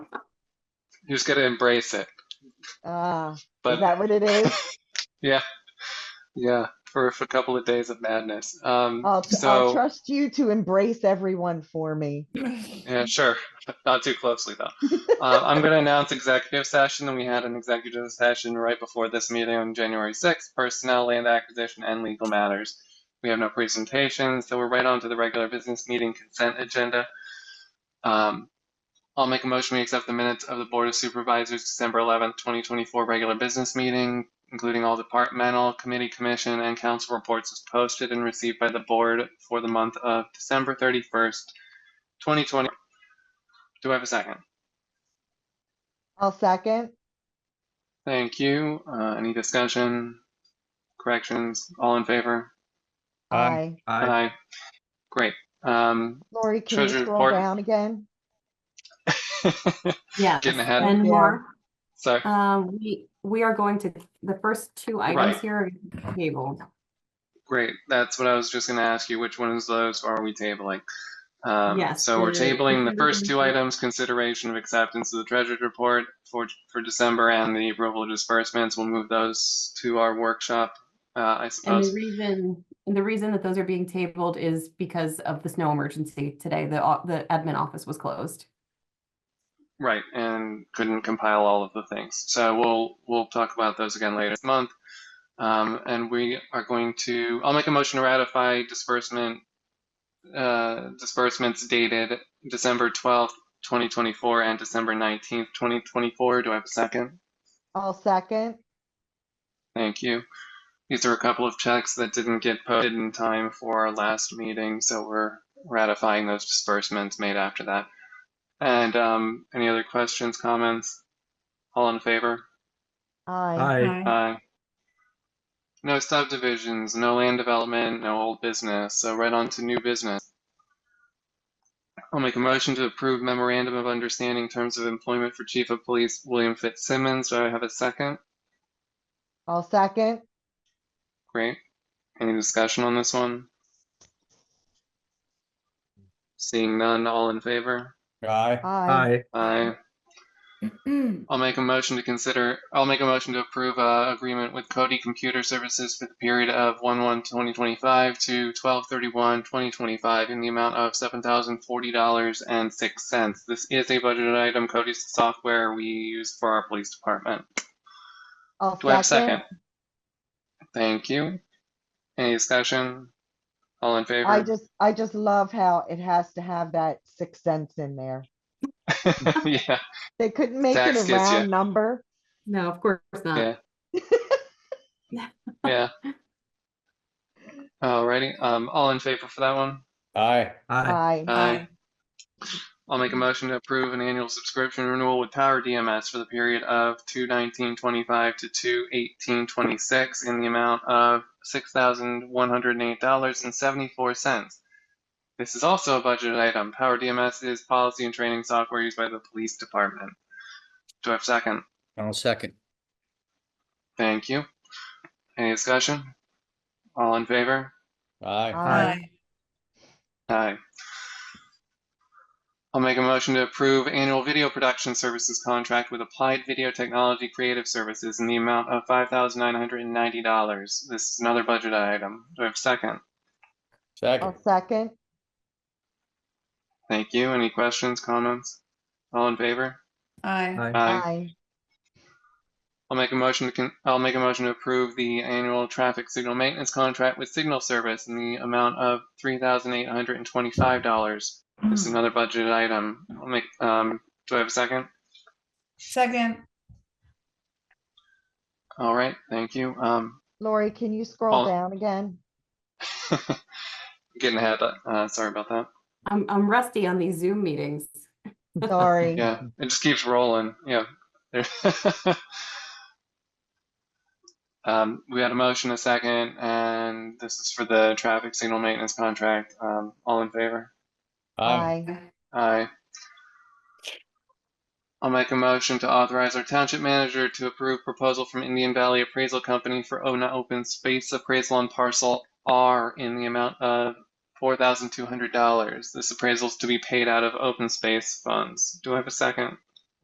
You just gotta embrace it. Ah, is But that what it is? yeah, yeah, for, for a couple of days of madness. Um, I'll, tr- I'll so trust you to embrace everyone for me. yeah, sure, not too closely though. Uh, I'm gonna announce executive session, and we had an executive session right before this meeting on January 6th, personnel, land acquisition, and legal matters. We have no presentations, so we're right on to the regular business meeting consent agenda. Um, I'll make a motion, we accept the minutes of the Board of Supervisors, December 11th, 2024, regular business meeting, including all departmental, committee, commission, and council reports as posted and received by the board for the month of December 31st, 2020. Do I have a second? I'll second. Thank you. Uh, any discussion, corrections, all in favor? Aye. Aye. Aye. Aye. Great. Um, Lori, can you treasurer's scroll report. down again? Yes, Getting ahead. and Yeah. more. Sorry. Um, we, we are going to, the first two Right. items here are tabled. Great. That's what I was just going to ask you. Which ones of those are we tabling? Um, Yes, so we're the- tabling the first two items, consideration of acceptance of the treasurer's report for, for December and the approval of disbursements. We'll move those to our workshop, uh, I And the suppose. reason, and the reason that those are being tabled is because of the snow emergency today. The, au- the admin office was closed. Right, and couldn't compile all of the things. So we'll, we'll talk about those again later this month. Um, and we are going to, I'll make a motion to ratify disbursement, uh, disbursements dated December 12th, 2024 and December 19th, 2024. Do I have a second? I'll second. Thank you. These are a couple of checks that didn't get posted in time for our last meeting, so we're ratifying those disbursements made after that. And, um, any other questions, comments? All in favor? Aye. Aye. Aye. No subdivisions, no land development, no old business, so right on to new business. I'll make a motion to approve memorandum of understanding terms of employment for Chief of Police William Fitzsimmons. Do I have a second? I'll second. Great. Any discussion on this one? Seeing none, all in favor? Aye. Aye. Aye. Aye. I'll make a motion to consider, I'll make a motion to approve uh agreement with Cody Computer Services for the period of 1/1/2025 to 12/31/2025 in the amount of $7,040.06. This is a budgeted item. Cody's the software we use for our police department. I'll Do I have a second? second. Thank you. Any discussion? All in favor? I just, I just love how it has to have that six cents in there. Yeah, They couldn't make it Tax a gets ya. round number. No, of course not. yeah, yeah. Alrighty, um, all in favor for that one? Aye. Aye. Aye. Aye. I'll make a motion to approve an annual subscription renewal with Tower DMS for the period of 2/19/25 to 2/18/26 in the amount of $6,108.74. This is also a budgeted item. Tower DMS is policy and training software used by the police department. Do I have a second? I'll second. Thank you. Any discussion? All in favor? Aye. Aye. Aye. I'll make a motion to approve annual video production services contract with Applied Video Technology Creative Services in the amount of $5,990. This is another budget item. Do I have a second? Second. I'll second. Thank you. Any questions, comments? All in favor? Aye. Aye. Aye. Aye. I'll make a motion to, con- I'll make a motion to approve the annual traffic signal maintenance contract with Signal Service in the amount of $3,825. This is another budget item. I'll make, um, do I have a second? Second. All right, thank you. Um, Lori, can you scroll All- down again? Getting ahead. Uh, sorry about that. I'm, I'm rusty on these Zoom meetings. Sorry. Yeah, it just keeps rolling. Yeah. There- um, we had a motion, a second, and this is for the traffic signal maintenance contract. Um, all in favor? Aye. Aye. I'll make a motion to authorize our township manager to approve proposal from Indian Valley Appraisal Company for ONA Open Space Appraisal on Parcel R in the amount of $4,200. This appraisal is to be paid out of open space funds. Do I have a second?